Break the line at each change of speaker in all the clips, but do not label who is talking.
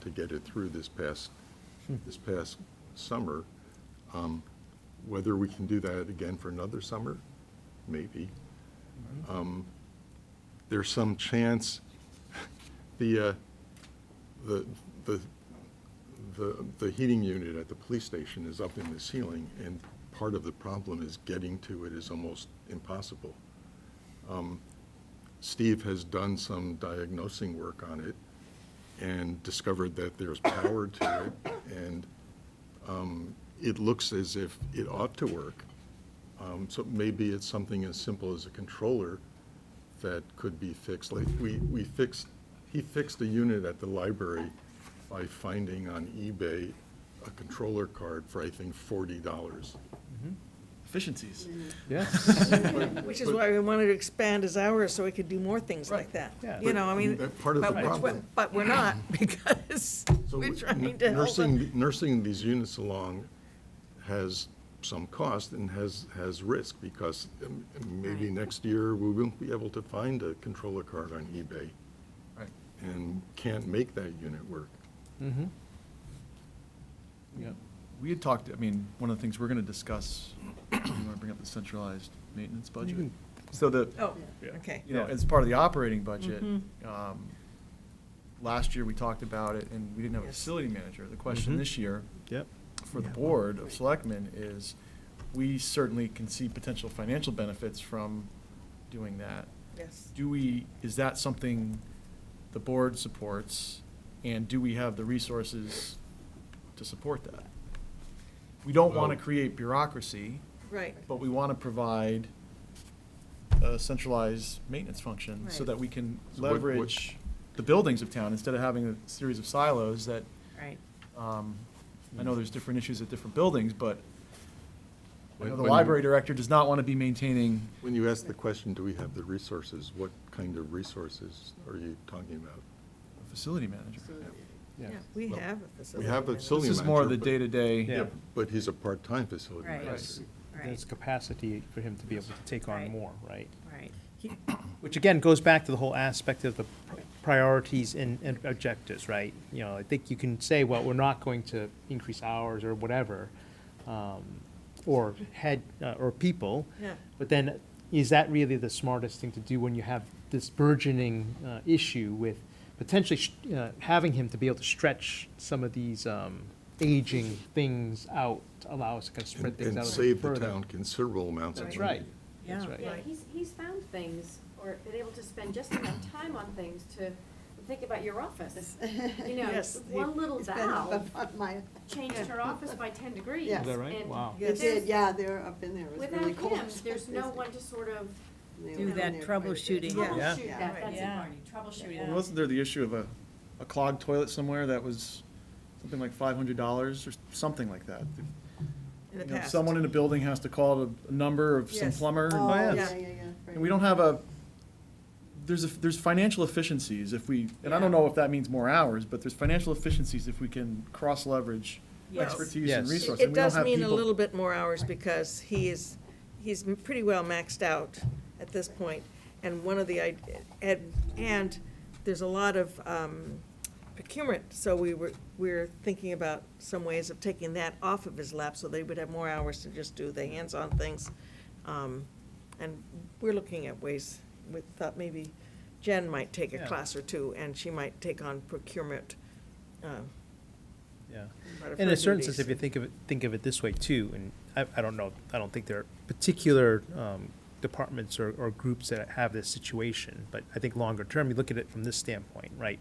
to get it through this past, this past summer. Um, Whether we can do that again for another summer, maybe. Um, There's some chance, the, uh, the, the, the, the heating unit at the police station is up in the ceiling, and part of the problem is getting to it is almost impossible. Um, Steve has done some diagnosing work on it and discovered that there's power to it, and um, it looks as if it ought to work. Um, So maybe it's something as simple as a controller that could be fixed. Like, we, we fixed, he fixed a unit at the library by finding on eBay a controller card for, I think, forty dollars.
Efficiencies.
Yes.
Which is why we wanted to expand his hours, so we could do more things like that.
Yeah.
You know, I mean,
That part of the
but,
problem.
but- but we're not, because
So
we're
n-
trying to help them.
Nursing, nursing these units along has some cost and has, has risk, because um, maybe
Right.
next year, we won't be able to find a controller card on eBay
Right.
and can't make that unit work.
Mm-hmm. Yep.
We had talked, I mean, one of the things we're going to discuss, you want to bring up the centralized maintenance budget?
can-
So the,
Oh, okay. Mm-hmm.
you know, as part of the operating budget, um, last year we talked about it and we didn't have a
Yes.
facility manager. The question
Mhm.
this year
Yep.
for the board of selectmen is, we certainly can see potential financial benefits from doing that.
Yes.
Do we, is that something the board supports? And do we have the resources to support that? We don't want to
Well-
create bureaucracy,
Right.
but we want to provide a centralized maintenance function so
Right.
that we can
So what- what-
leverage the buildings of town instead of having a series of silos that,
Right.
um, I
Hmm.
know there's different issues at different buildings, but I
When-
know the
when you-
library director does not want to be maintaining
When you ask the question, do we have the resources, what kind of resources are you talking about?
a facility manager.
Yeah.
Yeah, we
Well,
have a facility.
have a
manager.
facility-
This is more of the
manager, but-
day-to-day.
Yeah.
But he's a part-time facility
Right.
manager.
There's
Right,
capacity for him to be able to take on
Right.
more, right?
right. He-
Which again goes back to the whole aspect of the pr- priorities and, and objectives, right? You know, I think you can say, well, we're not going to increase hours or whatever, um, or head, uh, or people.
Yeah.
But then, is that really the smartest thing to do when you have this burgeoning, uh, issue with potentially, sh- uh, having him to be able to stretch some of these, um, aging things out, to allow us to kind of spread
And
things
and
out a bit
save the
further.
town considerable amounts of money.
That's right.
Yeah,
That's right.
Yeah,
right.
he's, he's found things, or been able to spend just enough time on things to think about your office. You know,
Yes, he-
one little
It's been up
valve
above my,
changed her office by ten degrees.
Yes. Is
that right?
and
Wow.
it
Yes.
did,
there's-
yeah, they were up in there, it was
Without
really cold.
him, there's no one to sort of
They
Do
were in
that
there quite a bit.
troubleshooting.
Yeah.
troubleshoot
Yeah.
that, that's it,
Yeah.
Marty, troubleshoot
Well, Wasn't
it.
there the issue of a, a clogged toilet somewhere that was something like five hundred dollars or something like that?
In the
You know,
past.
Someone in a building has to call a- a number of some
Yes.
plumber. and-
Oh, yeah,
yeah.
yeah, yeah.
And we don't have a, there's a, there's financial efficiencies if we, and I don't
Yeah.
know if that means more hours, but there's financial efficiencies if we can cross-leverage
Yes.
expertise and
Yes.
It-
resources.
It does mean a little bit more hours because he is, he's m- pretty well maxed out at this point. And one of the, i- and, and there's a lot of um, procurement, so we were, we're thinking about some ways of taking that off of his lap so they would have more hours to just do the hands-on things. Um, And we're looking at ways, we thought maybe Jen might take a
Yeah.
class or two and she might take on procurement. uh,
Yeah.
part of
In
her
a certain sense,
duties.
if you think of it, think of it this way too, and I, I don't know, I don't think there are particular um, departments or, or groups that have this situation, but I think longer term, you look at it from this standpoint, right?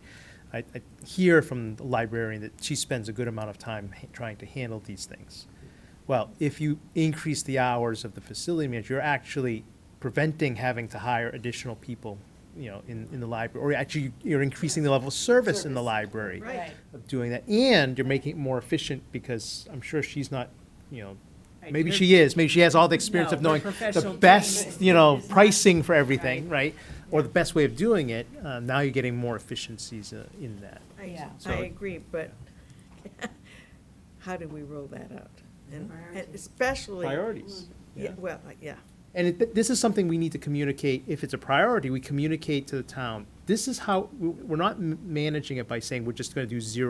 I, I hear from the librarian that she spends a good amount of time ha- trying to handle these things. Well, if you increase the hours of the facility manager, you're actually preventing having to hire additional people, you know, in, in the library, or actually you're increasing the level of service in the
Service.
library
Right.
of doing that, and you're making it more efficient because I'm sure she's not, you know,
Right,
maybe
you're-
she is, maybe she has all the experience
No,
of
her
knowing the
professional training
best, you know,
is not-
pricing for everything, right? Or the best way of doing it, uh, now you're getting more efficiencies uh, in that.
I-
Yeah.
I
So-
agree, but how do we roll that out? And and
Priorities.
especially.
Mm-hmm.
Priorities, yeah.
Yeah, well, yeah,
And it, th- this is something we need to communicate, if it's a priority, we communicate to the town. This is how, we- we're not m- managing it by saying we're just gonna do zero